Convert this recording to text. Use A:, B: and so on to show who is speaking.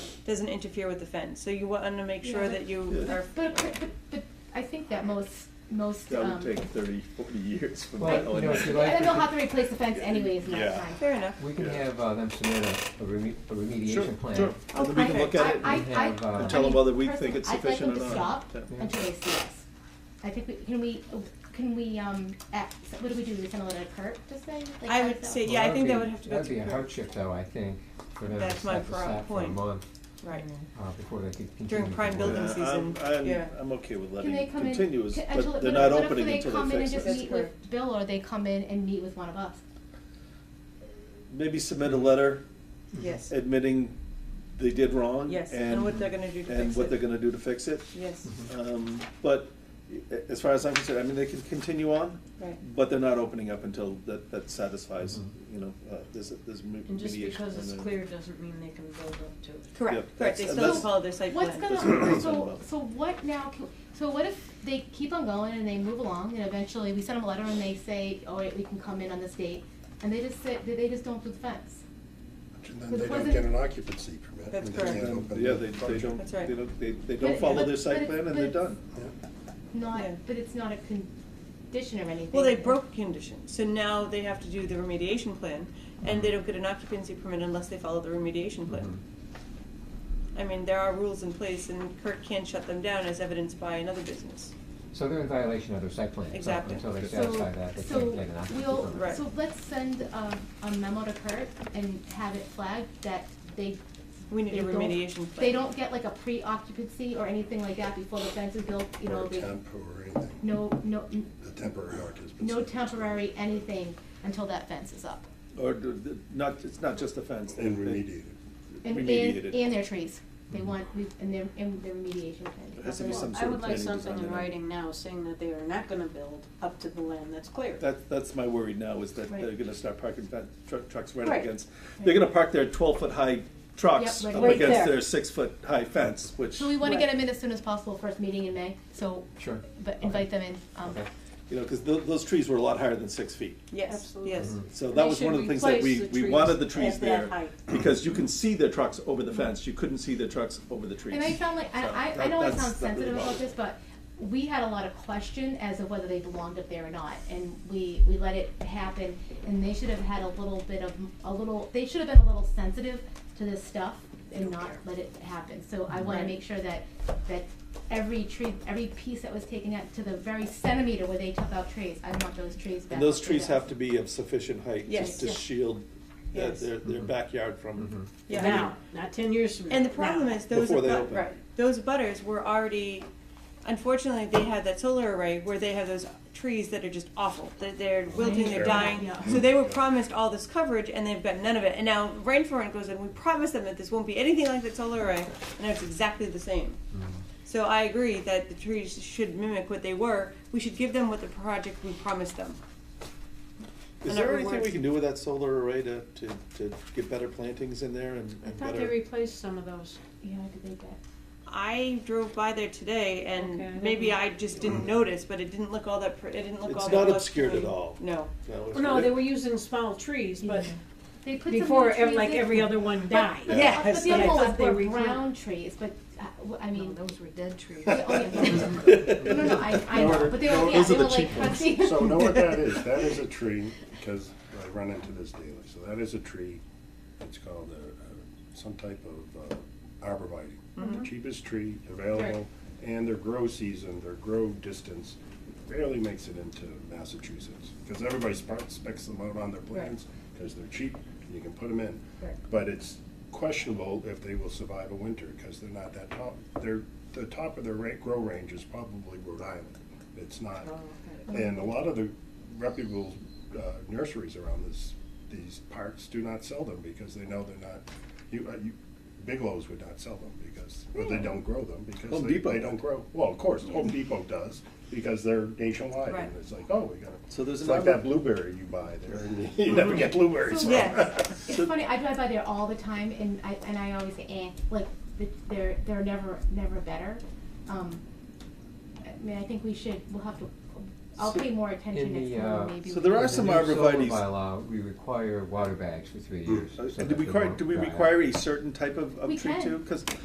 A: doesn't interfere with the fence. So you want to make sure
B: Yeah, but-
A: that you
B: But,
A: are.
B: but, but, but I think that most, most,
C: That
B: um,
C: would take 30, 40 years for
D: Well,
C: that
D: you know, if you
C: one.
D: like-
B: and then they'll have to replace the fence anyways next
C: Yeah.
B: time.
A: Fair enough.
D: We can
C: Yeah.
D: have uh, them submit a a reme- a remediation plan.
C: Sure, and then we can look
A: Okay.
C: at it
B: Oh, I,
C: and
D: and
B: I, I,
D: have, uh,
B: I
D: And
C: tell them
B: mean,
C: whether we
B: personally,
C: think it's
B: I'd like them
C: sufficient or
B: to stop
C: not. Yeah.
B: Until they see us. I think we, can we, can we, um, act, what do we do, we send a letter to Kurt to say? Like,
A: I
B: how
A: would
B: does that
A: say-
B: work?
A: Yeah, I
D: Well,
A: think that
D: be-
A: would have to go
D: That'd be a
A: through-
D: hardship though, I think, for them to
A: That's my
D: set this
A: pro-
D: out for a
A: point.
D: month
A: Right.
B: Mm-hmm.
D: uh, before they could continue. to
A: prime
D: work.
A: building
C: Yeah,
A: season,
C: I'm- I'm-
A: yeah.
C: I'm okay with
B: Can
C: letting
B: they
C: it
B: come in?
C: continue, as-
B: can- until-
C: but they're
B: if- what
C: not
B: if
C: opening until they
B: come in and
C: fix
B: just
C: it.
A: That's
B: meet with
A: correct.
B: Bill, or they come in and meet with one of us?
C: Maybe submit a letter
A: Yes.
C: admitting they did wrong.
A: Yes, and what they're gonna do to
C: And
A: fix
C: what
A: it.
C: they're gonna do to fix it.
A: Yes.
C: Um, But a- as far as I'm concerned, I mean, they can continue on,
A: Right.
C: but they're not opening up until that, that satisfies,
D: Mhm.
C: you know, uh, there's, there's me- mediation.
E: And just because it's
C: and then-
E: clear doesn't mean they can build up to it.
A: Correct.
C: Yeah,
A: Correct. They
C: that's-
A: still
C: that's-
A: follow their site
B: What's
A: plan.
B: gonna,
C: That's what I'm
B: so,
C: about.
B: so what now, can- so what if they keep on going and they move along and eventually we send them a letter and they say, all right, we can come in on this date, and they just say, they they just don't do the fence?
F: And then
B: But
F: they don't
B: wasn't-
F: get an occupancy permit.
A: That's
F: and
A: correct.
F: They can't
C: And,
F: open.
C: Yeah,
F: the
C: they, they
F: project.
C: don't,
A: That's right.
C: they don't, they, they
B: But
C: don't
B: it-
C: follow
B: but-
C: their
B: but
C: site
B: it's-
C: plan and
B: but
C: they're
B: it's-
C: done.
F: Yeah.
B: Not,
A: Yeah.
B: but it's not a condition or anything.
A: Well, they broke conditions, so now they have to do the remediation plan, and they don't get an occupancy permit unless they follow the remediation plan.
C: Mm-hmm.
A: I mean, there are rules in place, and Kurt can't shut them down, as evidenced by another business.
D: So they're in violation of their site plan. so
A: Exactly.
D: Until they
B: So,
D: satisfy that, they
B: so
D: can't get an occupancy
B: we'll-
D: permit.
A: Right.
B: So let's send a, a memo to Kurt and have it flagged that they.
A: We need a
B: they don't-
A: remediation plan.
B: They don't get like a pre-occupancy or anything like that before the fence is built, you
F: Or
B: know,
F: a
B: they,
F: temp or anything.
B: no, no,
F: The temporary occupancy.
B: no temporary anything until that fence is up.
C: Or do- the- not, it's not just the fence. they-
F: And
C: they-
F: remediated.
B: And, and,
C: Remediated.
B: and their trees, they want, we- and their, and their remediation
C: There
B: plan.
C: has to be
E: Well,
C: some
E: I
C: sort of
E: would like
C: planning design.
E: something in
C: and-
E: writing now saying that they are not gonna build up to the land that's clear.
C: That, that's my worry now, is that
B: Right.
C: they're gonna start parking fa- truck, trucks right
E: Right.
C: against, they're gonna park their twelve-foot-high trucks
B: Yep,
C: up
B: like right
C: against
E: there.
C: their six-foot-high fence, which,
B: So we
C: you
B: wanna
E: Right.
B: get them in as soon as possible, first meeting in May, so,
D: Sure.
B: but invite them in, um,
D: Okay.
C: know, because those trees were a lot higher than six feet.
A: Yes,
E: Absolutely.
A: yes.
C: So that
E: They
C: was one of
E: should
C: the things that
E: replace
C: we,
E: the
C: we
E: trees
C: wanted the
E: at
C: trees
E: that
C: there,
E: height.
C: because you can see their trucks over the fence, you couldn't see their trucks over the trees.
B: And I sound like,
C: So
B: I, I, I
C: that-
B: know I
C: that's-
B: sound
C: that really
B: sensitive about
C: bothers
B: this, but we had a lot of question as of whether they belonged up there or not, and we, we let it happen, and they should have had a little bit of, a little, they should have been a little sensitive to this stuff and not let it happen, so I wanna make sure that, that every tree, every piece that was taken out to the very centimeter where they took out trees, I want those trees back.
C: And those
B: up
C: trees
B: there.
C: have to be of sufficient height
A: Yes.
C: just to
A: Yes.
C: shield their,
A: Yes.
C: their, their backyard from,
A: Yeah.
E: Now, not ten years from now.
A: And the problem
E: now.
A: is those
C: Before they
A: abut-
C: open.
A: right, those butters were already, unfortunately, they had that solar array where they have those trees that are just awful. They're, they're wilting, they're
F: Sure.
A: dying.
E: Yeah.
A: So they were promised all this coverage and they've got none of it. And now Rainforest goes in, we promised them that this won't be anything like that solar array, and now it's exactly the same.
C: Mm-hmm.
A: So I agree that the trees should mimic what they were. We should give them what the project we promised them.
C: is
A: And it
C: there anything
A: rewards-
C: we can do with that solar array to, to, to get better plantings in there and,
E: I
C: and
E: thought they
C: better?
E: replaced some of those.
B: Yeah, I did that.
A: I drove by there today, and
E: Okay, I don't
A: maybe
E: know.
A: I just didn't notice, but it didn't look all that. Pr- it didn't look
C: It's
A: all that.
C: not
A: lush
C: obscured
A: to
C: at
A: me.
C: all.
A: No.
C: No, it's-
E: No, they were using small trees, but
B: They put some new
E: before, ev-
B: trees
E: like
B: in.
E: every other one died.
B: But-
A: Yeah.
B: But the
E: I
B: other
E: thought
B: ones
E: they
B: were
E: replanted.
B: brown trees, but, uh, w- I
E: No,
B: mean,
E: those were dead trees.
B: Yeah, oh, yeah. No, no, no, I, I know, but they were, yeah,
C: Those
B: they
C: are the
B: were like
C: cheap ones.
B: crunchy.
F: So know what that is? That is a tree, because I run into this daily. So that is a tree. It's called a, a- some type of uh, arborvitae. The Cheapest tree available, and their grow season, their grow distance barely makes it into Massachusetts. Because everybody spe- specs them out on their plans, because they're cheap, and you can put them in. But it's questionable if they will survive a winter, because they're not that top, they're, the top of their ra- grow range is probably Rhode Island. It's not
E: Oh, okay.
F: and a lot of the reputable uh, nurseries around this, these parks do not sell them because they know they're not, you, uh, you, Bigelow's would not sell them because, well, they don't grow them because
C: Home
F: they,
C: Depot
F: they don't
C: would.
F: grow. Well, of course, Home Depot does because they're nationwide
A: Right.
F: and it's like, oh, we gotta,
C: So there's
F: it's like
C: another-
F: that blueberry you buy there and you never get blueberries.
B: So-
F: from.
A: Yes.
B: It's funny, I drive by there all the time and I, and I always say, eh, like, th- they're, they're never, never better. Um, I mean, I think we should, we'll have to, I'll
C: So-
B: pay more attention
D: In the,
B: next time,
D: uh,
B: maybe.
C: So
B: we
C: there
B: can-
C: are some
D: In the new
C: arborvitaes.
D: solar bylaw, we require water bags for three years. so
C: And
D: that
C: do we
D: they
C: require,
D: won't
C: do we
D: die.
C: require a certain type of, of
B: We
C: tree
B: can.
C: too? Because